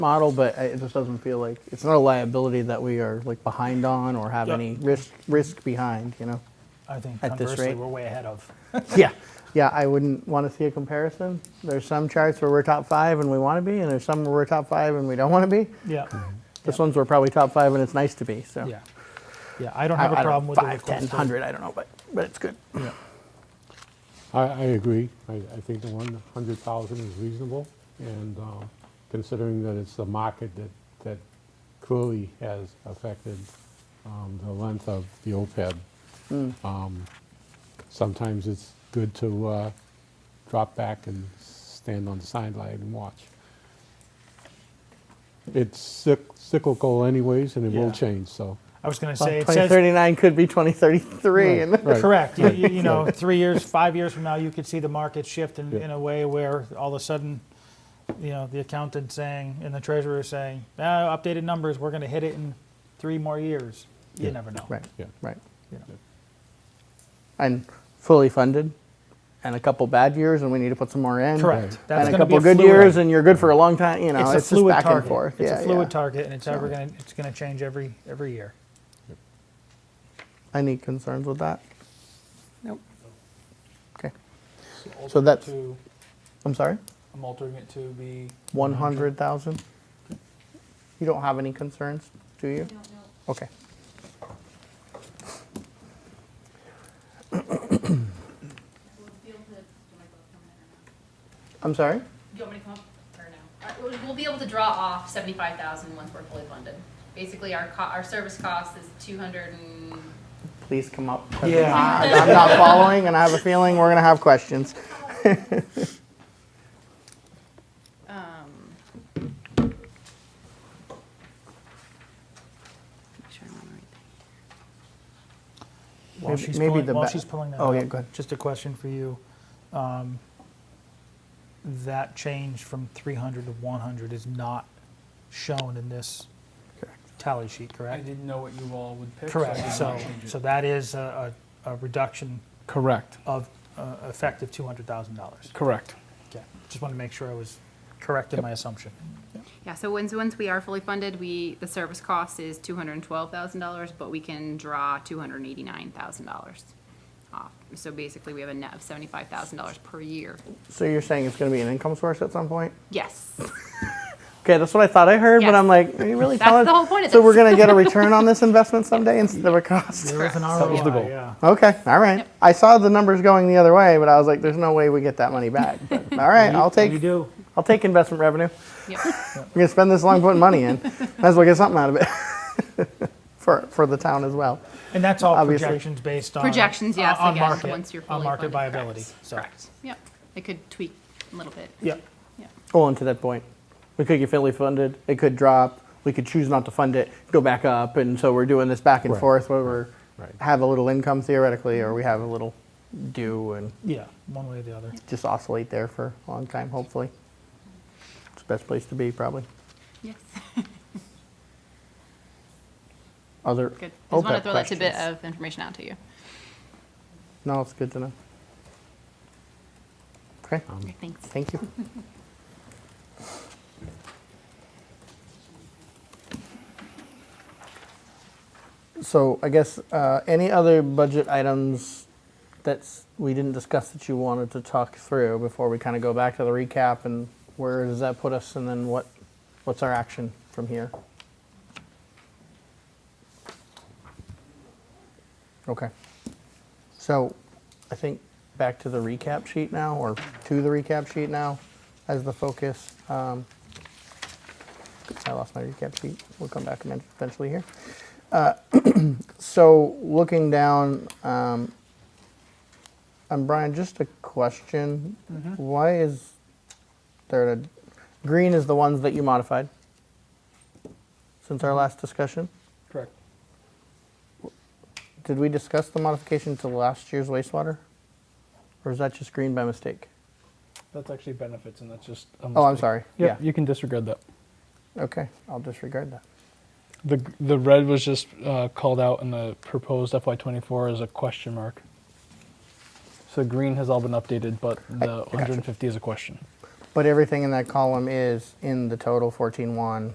model, but it just doesn't feel like, it's not a liability that we are like behind on or have Yeah. any risk, risk behind, you know? I think At this conversely, rate? we're way ahead of. Yeah, yeah, I wouldn't want to see a comparison. There's some charts where we're top five and we want to be, and there's some where we're top five and we don't want to be. Yeah, This one's we're probably top five and it's nice to be, so. yeah. Yeah, I don't I- have a I don't- problem with the Five, ten, request. hundred, I don't know, but, but it's good. Yeah. I, I agree. I, I think the one hundred thousand is reasonable, and um, considering that it's the market that, that clearly has affected um, the length of the OPEB. um, Sometimes it's good to uh, drop back and stand on the sideline and watch. It's cyc- cyclical anyways, and it Yeah. will change, so. I was going to say, it Twenty says, thirty-nine could be twenty thirty-three Right, and. right. correct, you, you you know, three years, five years from now, you could see the market shift in, Yeah. in a way where all of a sudden, you know, the accountant saying, and the treasurer saying, ah, updated numbers, we're going to hit it in three more years. You Yeah. never know. Right, Yeah. right. you know. And fully funded, and a couple bad years, and we need to put some more in. Correct. That's And a gonna be couple good fluid- years, and you're good for a long time, you know, It's a it's just fluid back and target. forth. It's a Yeah, yeah. fluid target and it's ever going to, it's going to change every, every year. Any concerns with that? Nope. Okay, So that's- I'm sorry, I'm altering it to be, one hundred thousand? You don't have any concerns, do you? I don't know. Okay. We'll be able to, do I go up on that or not? I'm sorry? Do you want me to come up or no? Uh, we'll- We'll be able to draw off seventy-five thousand once we're fully funded. Basically, our co, our service cost is two hundred and, Please come up. 'cause Yeah. I- I'm not following, and I have a feeling we're gonna have questions. um. Make sure I'm on the right thing. While Maybe- she's maybe pulling, the while ba- she's pulling that Oh, up, yeah, go ahead. just a question for you. Um, That change from 300 to 100 is not shown in this tally sheet, I correct? didn't know what you all would pick. so I Correct, did so, not change it. so that is a, a a reduction Correct, of uh, effective $200,000. correct. Okay, just wanted to make sure I was correct in my assumption. Yeah, so once, once we are fully funded, we, the service cost is two hundred and twelve thousand dollars, but we can draw two hundred and eighty-nine thousand dollars off. So basically, we have a net of seventy-five thousand dollars per year. So you're saying it's gonna be an income source at some point? Yes, Okay, that's what I thought I heard, but Yes. I'm like, are you really That's telling? the whole point of So we're this. gonna get a return on this investment someday instead of a cost? There is an That was the ROI, goal. yeah. Okay, all right. Yep. I saw the numbers going the other way, but I was like, there's no way we get that money back. But, All right, I'll You take, do. I'll take investment revenue. yep, We're gonna spend this long putting money in. Might as well get something out of it. For, for the town as well. And that's all Obviously. projections based on. Projections, yes, on again, market- once you're On fully market funded, viability, correct, so. Correct. yep. It could tweak a little bit. Yep. Yep. Well, Oh, and to that point, we could get fully funded, it could drop, we could choose not to fund it, go back up, and so we're doing this back and Right, forth where we're, right. have a little income theoretically, or we have a little due and Yeah, one way or the other. just oscillate there for a long time, hopefully. It's the best place to be, probably. Yes, Other good. Just want to OPEB throw that tidbit questions? of information out to you. No, it's good to know. Okay, Okay, Thanks. thank you. So I guess, uh, any other budget items that's, we didn't discuss that you wanted to talk through before we kind of go back to the recap and where does that put us and then what, what's our action from here? Okay. So I think back to the recap sheet now, or to the recap sheet now as the focus. Um, I lost my recap sheet. We'll come back emen- eventually here. Uh, So looking down, um, and Brian, just a question. Why is there a, green is the ones that you modified since our last discussion? Correct. Did we discuss the modification to last year's wastewater? Or is that just green by mistake? That's actually benefits, and that's just. Oh, I'm sorry. Yeah, Yeah. you can disregard that. Okay, I'll disregard that. The, g- the red was just uh, called out in the proposed FY24 as a question mark. So green has all been updated, but the I gotcha. 150 is a question. But everything in that column is in the total fourteen one